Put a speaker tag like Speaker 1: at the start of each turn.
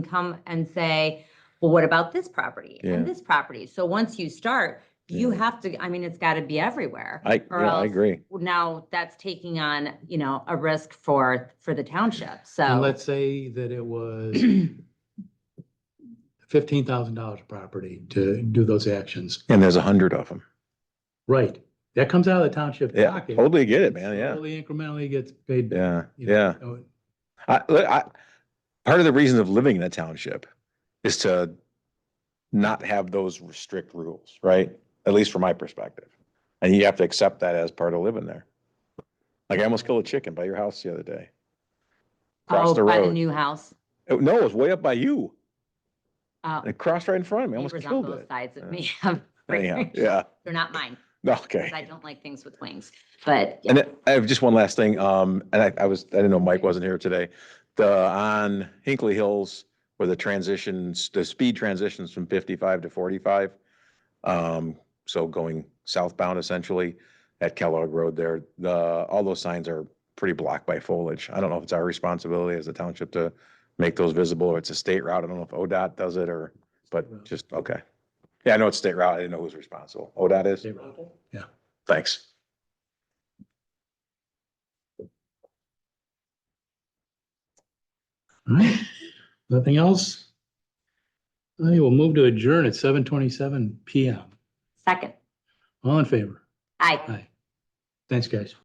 Speaker 1: come and say, well, what about this property
Speaker 2: Yeah.
Speaker 1: and this property? So once you start, you
Speaker 2: Yeah.
Speaker 1: have to, I mean, it's got to be everywhere.
Speaker 2: I,
Speaker 1: Or
Speaker 2: yeah, I
Speaker 1: else-
Speaker 2: agree.
Speaker 1: Now that's taking on, you know, a risk for, for the township.
Speaker 3: And
Speaker 1: So
Speaker 3: let's say that it was fifteen thousand dollars a property to do those actions.
Speaker 2: And there's a hundred of them.
Speaker 3: Right. That comes out of the township
Speaker 2: Yeah,
Speaker 3: pocket.
Speaker 2: totally get it, man. Yeah.
Speaker 3: Slowly incrementally gets paid. back,
Speaker 2: Yeah.
Speaker 3: you know, Oh,
Speaker 2: Yeah.
Speaker 3: so-
Speaker 2: I, look, I, part of the reason of living in a township is to not have those strict rules, right? At least from my perspective. And you have to accept that as part of living there. Like I almost killed a chicken by your house the other day. Across the
Speaker 1: oh, by the
Speaker 2: road.
Speaker 1: new house.
Speaker 2: Oh, No, it was way up by you.
Speaker 1: uh,
Speaker 2: It crossed right in front of me. I almost
Speaker 1: neighbors on
Speaker 2: killed
Speaker 1: both
Speaker 2: it.
Speaker 1: Sides of
Speaker 2: Yeah.
Speaker 1: me.
Speaker 2: Anyhow, yeah.
Speaker 1: They're not mine
Speaker 2: Okay.
Speaker 1: because I don't like things with wings, but yeah.
Speaker 2: And then I have just one last thing, um, and I, I was, I didn't know Mike wasn't here today. The, on Hinkley Hills, where the transitions, the speed transitions from fifty-five to forty-five. Um, so going southbound essentially at Kellogg Road there, the, all those signs are pretty blocked by foliage. I don't know if it's our responsibility as a township to make those visible, or it's a state route. I don't know if ODOT does it or, but just, okay. Yeah, I know it's state route. I didn't know who's responsible. ODOT is?
Speaker 3: Yeah.
Speaker 2: Thanks.
Speaker 3: All right. Nothing else? I will move to adjourn at seven twenty-seven PM.
Speaker 1: second,
Speaker 3: All in favor?
Speaker 1: I.
Speaker 3: Aye. Thanks, guys.